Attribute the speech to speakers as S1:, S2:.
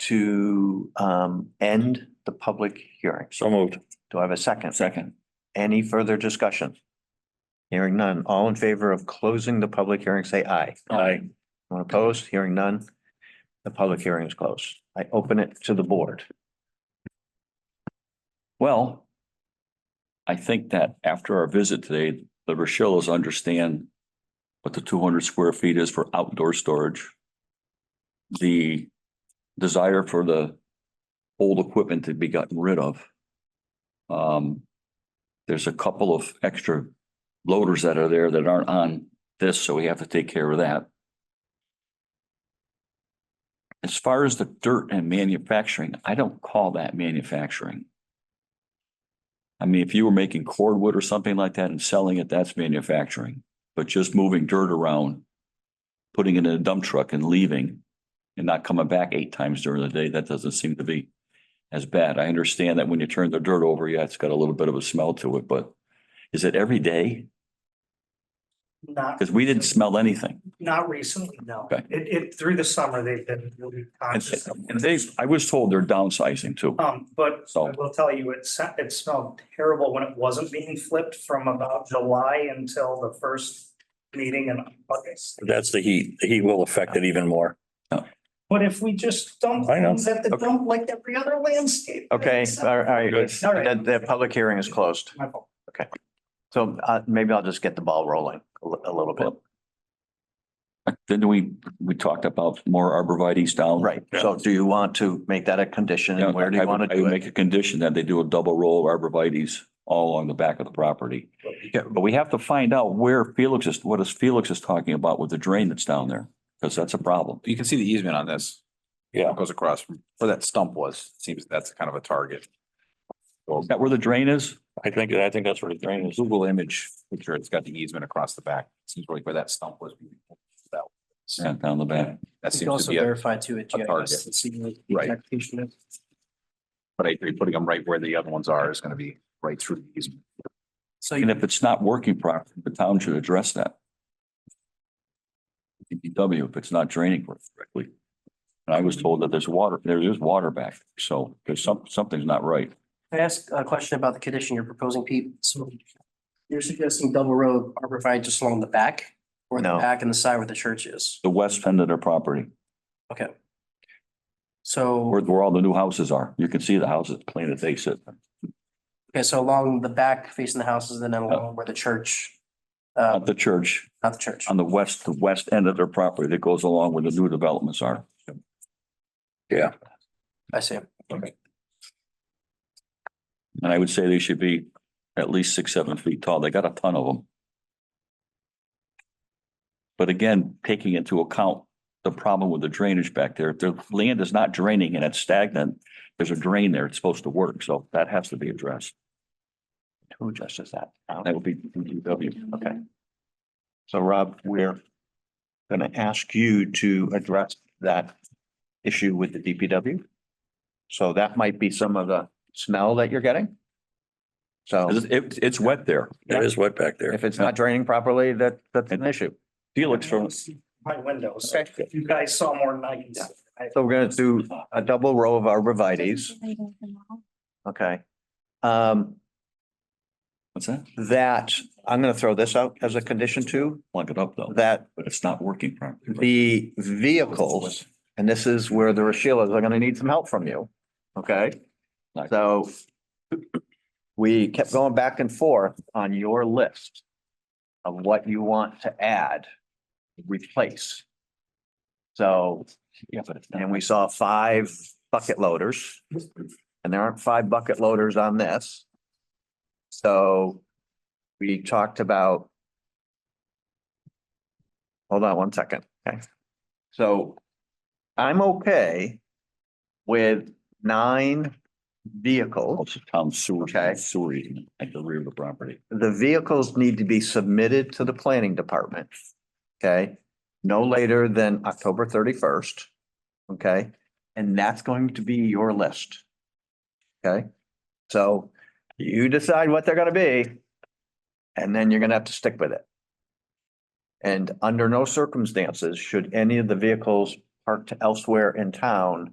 S1: to um end the public hearing.
S2: So moved.
S1: Do I have a second?
S2: Second.
S1: Any further discussion? Hearing none. All in favor of closing the public hearing, say aye.
S2: Aye.
S1: Anyone opposed? Hearing none. The public hearing is closed. I open it to the board.
S2: Well, I think that after our visit today, the Rochellas understand what the two hundred square feet is for outdoor storage. The desire for the old equipment to be gotten rid of. Um, there's a couple of extra loaders that are there that aren't on this, so we have to take care of that. As far as the dirt and manufacturing, I don't call that manufacturing. I mean, if you were making cordwood or something like that and selling it, that's manufacturing. But just moving dirt around, putting it in a dump truck and leaving and not coming back eight times during the day, that doesn't seem to be as bad. I understand that when you turn the dirt over, yeah, it's got a little bit of a smell to it, but is it every day?
S3: Not,
S2: Because we didn't smell anything.
S3: not recently, no.
S2: Okay.
S3: It, it, through the summer, they've been really
S2: And
S3: conscious. of
S2: and they, I was told they're downsizing too.
S3: Um, but I
S2: So,
S3: will tell you, it sa- it smelled terrible when it wasn't being flipped from about July until the first meeting in August.
S4: That's the heat. The heat will affect it even more.
S3: But if we just dump
S4: I know.
S3: things at the
S2: Okay.
S3: dump like every other landscape.
S1: Okay,
S3: it's-
S1: all right.
S2: Good.
S1: The, the public hearing is closed.
S3: My fault.
S1: So uh, maybe I'll just get the ball rolling a li- a little bit.
S2: then we, we talked about more arborvitae's down.
S1: Right. So do you want to make that a condition
S2: Yeah,
S1: and where do
S2: I
S1: you
S2: would-
S1: want to
S2: I would
S1: do
S2: Make
S1: it?
S2: a condition that they do a double row of arborvitae's all along the back of the property.
S1: Yeah.
S2: But we have to find out where Felix is, what is Felix is talking about with the drain that's down there, because that's a problem.
S5: You can see the easement on this.
S4: Yeah.
S5: Goes across from where that stump was. Seems that's kind of a target.
S2: Is that where the drain is?
S4: I think, I think that's where the drain is.
S5: Google image picture, it's got the easement across the back. Seems like where that stump was.
S2: Yeah, down the back.
S5: That
S6: We can
S5: seems to
S6: also
S5: be, a-
S6: verify too at
S5: target.
S6: GIS and see what the
S5: Right.
S6: exact location is.
S5: but I agree, putting them right where the other ones are is gonna be right through the easement.
S6: So
S2: And
S6: you
S2: if it's not working properly, the town should address that. DPW, if it's not draining correctly. And I was told that there's water, there is water back, so there's some, something's not right.
S6: can I ask a question about the condition you're proposing, Pete? So you're suggesting double road arborvitae just along the back or the
S1: No.
S6: back and the side where the church is?
S2: The west end of their property,
S6: Okay.
S2: where,
S6: So,
S2: where all the new houses are, you can see the houses, plain as they sit.
S6: okay, so along the back facing the houses and then along where the church, uh,
S2: At the church,
S6: not the church.
S2: on the west, the west end of their property that goes along where the new developments are.
S6: I see.
S2: And I would say they should be at least six, seven feet tall. They got a ton of them. But again, taking into account the problem with the drainage back there, if the land is not draining and it's stagnant, there's a drain there. It's supposed to work, so that has to be addressed.
S1: Who addresses that?
S2: That would be DPW.
S1: Okay. So Rob, we're gonna ask you to address that issue with the DPW. So that might be some of the smell that you're getting. So
S2: 'Cause It's, it's wet there.
S4: It is wet back there.
S1: if it's not draining properly, that, that's an issue.
S2: Felix from,
S3: My windows.
S1: Okay.
S3: You guys saw more than I can see. I-
S1: So we're gonna do a double row of arborvitae's, okay? Um,
S2: what's that?
S1: that, I'm gonna throw this out as a condition too,
S2: Plug it up though,
S1: that
S2: but it's not working properly.
S1: the vehicles, and this is where the Rochellas are gonna need some help from you, okay?
S2: Like-
S1: So we kept going back and forth on your list of what you want to add, replace. So,
S2: Yeah, but it's not.
S1: and we saw five bucket loaders, and there aren't five bucket loaders on this. So we talked about Hold on one second, okay? So I'm okay with nine vehicles.
S2: Also town sewer,
S1: Okay.
S2: sewer easement at the rear of the property.
S1: The vehicles need to be submitted to the planning department, okay? No later than October thirty-first, okay? And that's going to be your list, okay? So you decide what they're gonna be, and then you're gonna have to stick with it. And under no circumstances should any of the vehicles parked elsewhere in town